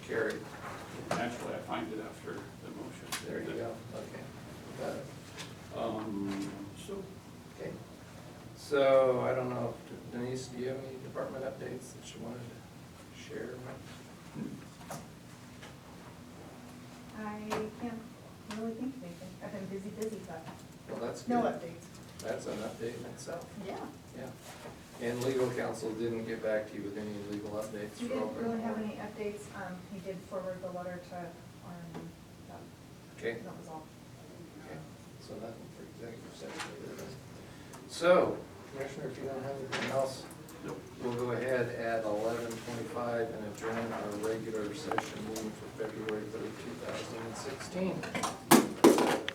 carried. Actually, I find it after the motion. There you go, okay. Got it. Um, so, Okay. So I don't know, if Denise, do you have any department updates that you wanted to share? I can't really think of anything. I've been busy, busy, but Well, that's no good. updates. That's an update in itself, Yeah. yeah. And legal counsel didn't get back to you with any legal updates We for didn't open. really have any updates. Um, he did forward the letter to Arne. but Okay. That was all. Okay, So nothing for executive session. either of us. So, Commissioner, if you don't have anything else, nope. we'll go ahead at eleven twenty-five and adjourn our regular session meeting for February third, two thousand and sixteen.